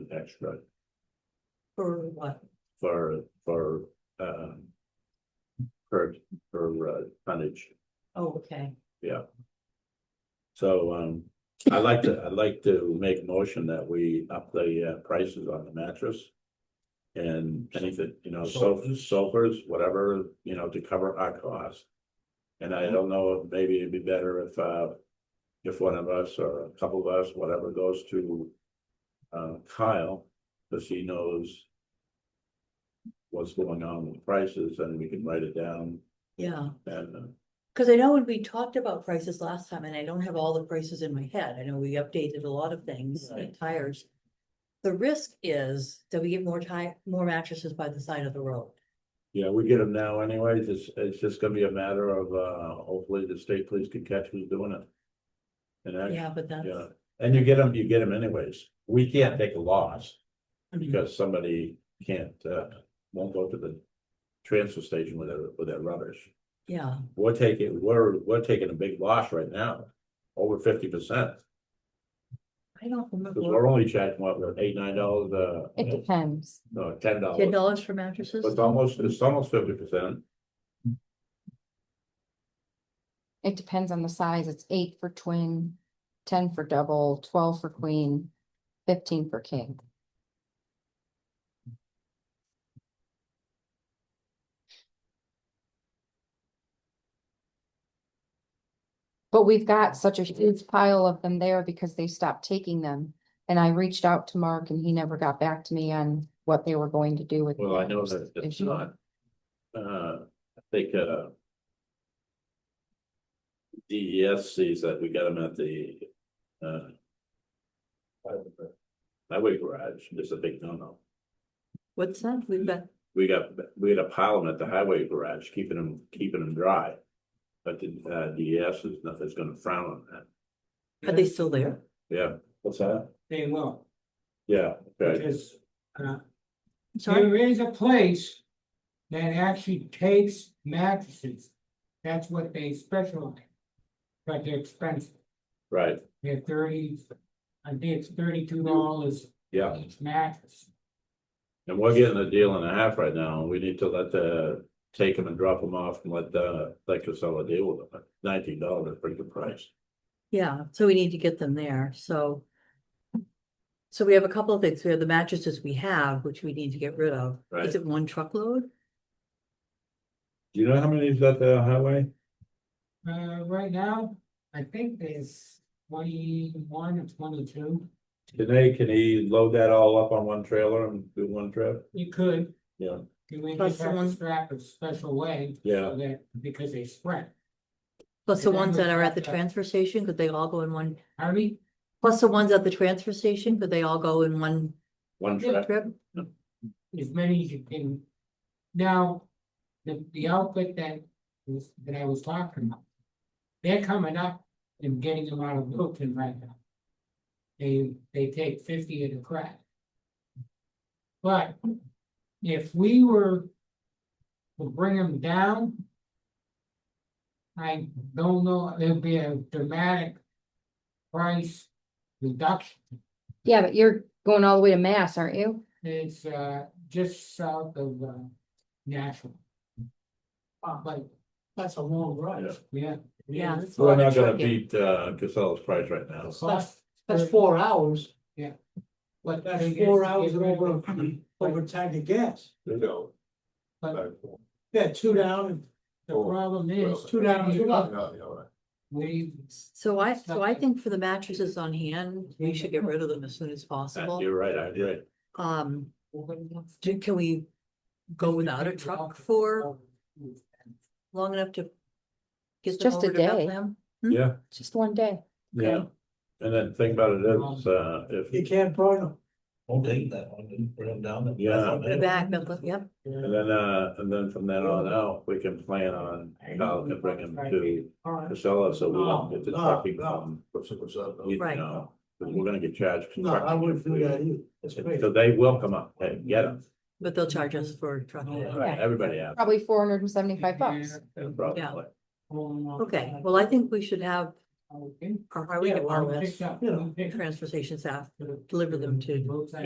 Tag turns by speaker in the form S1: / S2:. S1: extra
S2: For what?
S1: for, for, um. Per, per uh, tonnage,
S2: Oh, okay.
S1: so, um, I'd like to, I'd like to make a motion that we up the uh, prices on the mattress. And anything, you know, sofas, sofas, whatever, you know, to cover our costs. And I don't know, maybe it'd be better if, uh, if one of us or a couple of us, whatever goes to. Uh, Kyle, because he knows. What's going on with prices and we can write it down
S2: Yeah,
S1: and. uh,
S2: because I know when we talked about prices last time, and I don't have all the prices in my head, I know we updated a lot of things, like
S1: Right.
S2: tires. The risk is that we get more tire, more mattresses by the side of the road.
S1: Yeah, we get them now anyways. It's, it's just gonna be a matter of, uh, hopefully the state police can catch who's doing it. And that,
S2: Yeah, but that's,
S1: yeah, and you get them, you get them anyways. We can't take a loss
S2: Mhm.
S1: because somebody can't, uh, won't go to the transfer station with their, with their rubbish.
S2: yeah,
S1: We're taking, we're, we're taking a big loss right now, over fifty percent.
S2: I don't
S1: Cause we're
S2: remember.
S1: only charging what, we're eight, nine dollars, uh,
S3: It depends.
S1: no, ten
S2: Ten
S1: dollars.
S2: dollars for mattresses?
S1: It's almost, it's almost fifty percent.
S3: It depends on the size. It's eight for twin, ten for double, twelve for queen, fifteen for king. But we've got such a huge pile of them there because they stopped taking them. And I reached out to Mark and he never got back to me on what they were going to do with.
S1: Well, I know
S3: those
S1: that it's
S3: issue.
S1: not. Uh, I think, uh. DES sees that we got them at the, uh. Highway garage, there's a big no-no.
S2: What's that? We've got,
S1: We got, we got a pile of 'em at the highway garage, keeping them, keeping them dry. But the, uh, DES is not, is gonna frown on that.
S2: are they still there?
S1: Yeah, what's that?
S4: They will,
S1: Yeah, okay,
S4: because, uh,
S2: I'm Sorry,
S4: there is a place that actually takes mattresses. That's what they specialize. in. But they're expensive,
S1: right,
S4: they're thirty, I think it's thirty-two dollars
S1: yeah.
S4: each mattress.
S1: And we're getting a deal and a half right now, and we need to let the, take them and drop them off and let the, let Casella deal with them. Nineteen dollars, pretty good price.
S2: yeah, so we need to get them there, so. So we have a couple of things. We have the mattresses we have, which we need to get rid of.
S1: Right.
S2: Is it one truckload?
S1: Do you know how many is at the highway?
S4: Uh, right now, I think there's twenty-one or twenty-two,
S1: Can they, can he load that all up on one trailer and do one trip?
S4: you could.
S1: Yeah.
S4: You would
S2: Plus
S4: just have
S2: someone-
S4: to strap a special way.
S1: Yeah.
S4: so that- Because they spread,
S2: Plus the
S4: Yeah,
S2: ones
S4: we
S2: that are at the
S4: got that.
S2: transfer station, could they all go in one,
S4: I mean,
S2: plus the ones at the transfer station, could they all go in one
S1: One
S4: Yeah.
S1: trip,
S2: trip?
S4: as many as you can. Now, the, the outfit that was, that I was talking about. They're coming up and getting them out of Milton right now. They, they take fifty of the crack. But if we were to bring them down. I don't know, it would be a dramatic price reduction.
S3: Yeah, but you're going all the way to Mass, aren't you?
S4: It's uh just south of uh Nashville. But
S2: That's a long
S1: ride.
S4: yeah.
S2: Yeah, that's a
S1: we're
S2: lot
S1: not
S2: of
S1: gonna
S2: trucking.
S1: beat, uh, Casella's price right now.
S4: Plus,
S5: That's four hours,
S4: what
S5: that's
S4: they get-
S5: four hours
S4: get rid
S5: over,
S4: of it.
S5: over time to gas.
S1: You know.
S4: But
S5: Yeah, two down and
S4: the problem is.
S5: two down, two up.
S4: We,
S2: So I, so I think for the mattresses on hand, we should get rid of them as soon as
S1: Uh,
S2: possible.
S1: You're right, I agree.
S2: Um, do- can we go without a truck for long enough to? Get them
S3: Just a
S2: over to
S3: day.
S2: Bethlehem?
S1: Yeah,
S3: Just one day.
S1: yeah. And then the thing about it is, uh, if.
S5: you can't burn them.
S6: Don't take that one, just bring them down.
S1: Yeah.
S2: The back, Bethlehem, yep,
S1: And then, uh, and then from then on out, we can plan on, how to bring them to Casella, so we don't get the trucking from. You
S2: Right.
S1: know, 'cause we're gonna get charged. for
S5: No, I
S1: trucking.
S5: wouldn't do that either. That's crazy.
S1: So they will come up and get them,
S2: but they'll charge us for trucking.
S1: right, everybody has,
S3: Probably four hundred and seventy-five bucks.
S1: probably.
S2: Okay, well, I think we should have
S4: Okay.
S2: our highway
S4: Yeah, well,
S2: department,
S4: picked up,
S5: Yeah.
S4: picked up
S2: transfer station staff
S4: to the-
S2: deliver them to
S4: both sides.